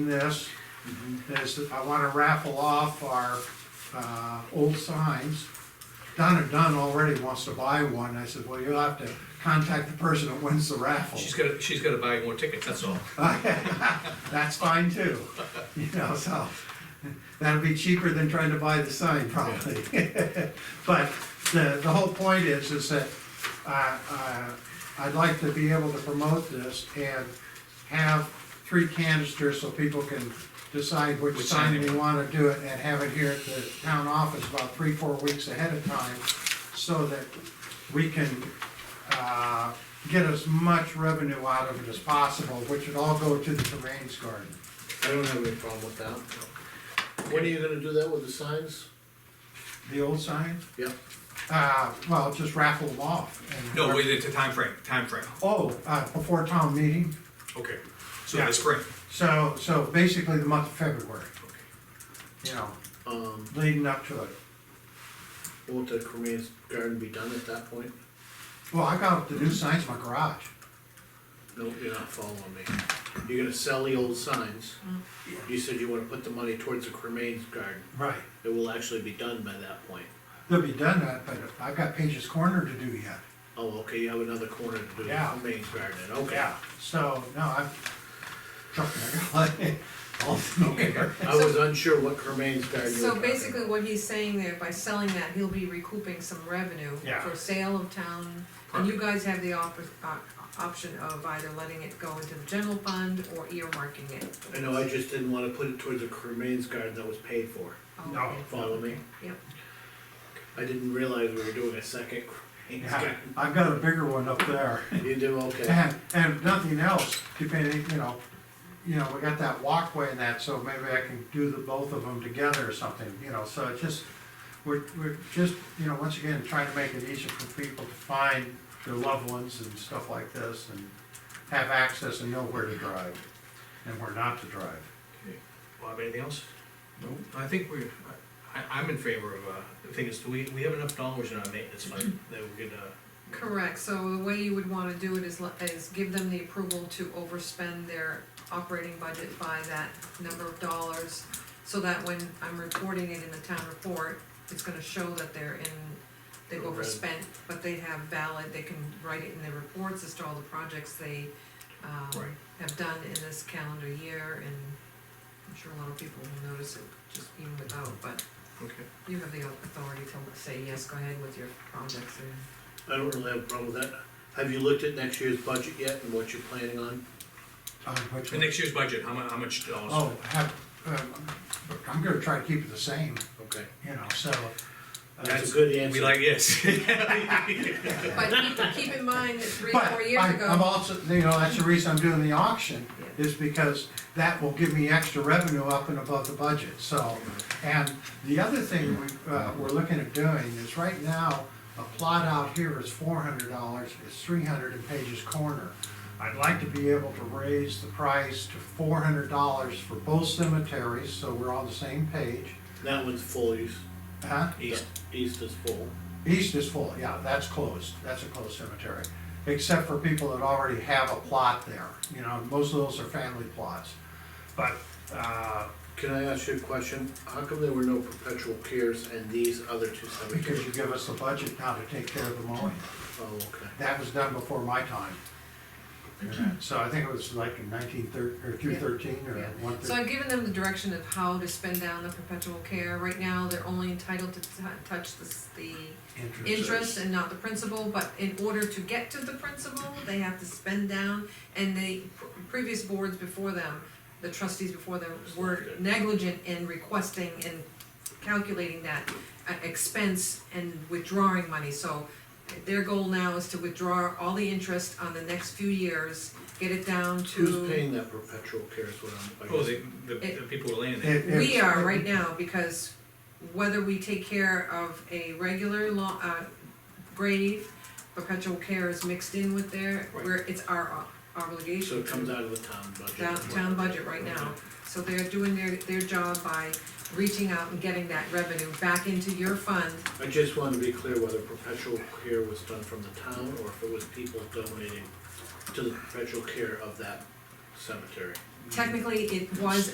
this is I wanna raffle off our, uh, old signs. Donna Dunn already wants to buy one, I said, well, you'll have to contact the person that wins the raffle. She's gotta, she's gotta buy more tickets, that's all. That's fine too, you know, so, that'll be cheaper than trying to buy the sign probably. But the, the whole point is, is that, uh, uh, I'd like to be able to promote this and have three canisters so people can decide which Which sign sign they they wanna do it and have it here at the town office about three, four weeks ahead of time, so that we can, uh, get as much revenue out of it as possible, which would all go to the Terrains Garden. I don't have any problem with that. When are you gonna do that with the signs? The old sign? Yeah. Uh, well, just raffle them off. and- No, wait, it's a timeframe, timeframe, Oh, uh, before town meeting, okay, so the spring. so, so basically the month of February, Okay. you know, Um, leading up to it. won't the Korean garden be done at that point? Well, I got the new signs in my garage. No, you're not following me. You're gonna sell the old signs. You said you wanna put the money towards the cremains garden. Right. It will actually be done by that point. They'll be done that, but I've got Page's Corner to do yet. Oh, okay, you have another corner to do the Yeah. cremains garden, in. okay. So, no, I'm, trust me, I got like, all familiar. I was unsure what cremains garden you were So talking basically about. what he's saying there, by selling that, he'll be recouping some revenue Yeah. for sale of town. And you guys have the op- op- option of either letting it go into the general fund or earmarking it. I know, I just didn't wanna put it towards the cremains garden that was paid for. Oh, No. okay. Follow me? Yep. I didn't realize we were doing a second cremains Yeah, Uh-huh. garden. I've got a bigger one up there. You do, okay. And, and if nothing else, depending, you know, you know, we got that walkway and that, so maybe I can do the both of them together or something, you know, so it's just, we're, we're just, you know, once again, trying to make it easier for people to find their loved ones and stuff like this and have access and know where to drive and where not to drive. Bob, anything else? No. I think we're, I, I'm in favor of, uh, the thing is, do we, we have enough dollars in our maintenance fund Mm-hmm. that we could, uh, Correct, so the way you would wanna do it is let, is give them the approval to overspend their operating budget by that number of dollars. So that when I'm reporting it in the town report, it's gonna show that they're in, they've Right. overspent, but they have valid, they can write it in their reports as to all the projects they, um, Right. have done in this calendar year, and I'm sure a lot of people will notice it just even without, but okay. you have the authority to say, yes, go ahead with your projects and I don't really have a problem with that. Have you looked at next year's budget yet and what you're planning on? Uh, which- And next year's budget, how mu, how much dollars? Oh, have, um, I'm gonna try to keep it the same, Okay. you know, so. uh, That's a good We answer. like, yes. But keep, keep in mind, that three, But four years I- I'm ago, also, you know, that's the reason I'm doing the auction, Yeah. is because that will give me extra revenue up and above the budget, so. And the other thing we, uh, we're looking at doing is right now, a plot out here is four hundred dollars, it's three hundred in Page's Corner. I'd like to be able to raise the price to four hundred dollars for both cemeteries, so we're on the same page. That one's full, east, Huh? East. east is full. East is full, yeah, that's closed, that's a closed cemetery, except for people that already have a plot there, you know, most of those are family plots. But, uh, Can I ask you a question? How come there were no perpetual cares and these other two because cemeteries? you give us the budget now to take care of the mowing, Oh, okay. that was done before my time. So I think it was like in nineteen thirty, or two thirteen, or Yeah. one so thirteen. I've given them the direction of how to spend down the perpetual care. Right now, they're only entitled to t- touch the, s- the interest and not the principal, but in order to get to the principal, they have to spend down. And the pr- previous boards before them, the trustees before them were negligent in requesting and calculating that uh, expense and withdrawing money, so their goal now is to withdraw all the interest on the next few years, get it down to. Who's paying that perpetual cares when I'm? I Oh, guess- the, the, the people who are laying there. It- it We was- are right now, because whether we take care of a regular lo- uh, grave, perpetual care is mixed in with there, Right. where it's our o- obligation. So it comes to out of the town budget? Town, town budget right now, so they're doing their, their job by reaching out and getting that revenue back into your fund. I just want to be clear whether perpetual care was done from the town or if it was people donating to the perpetual care of that cemetery. Technically, it was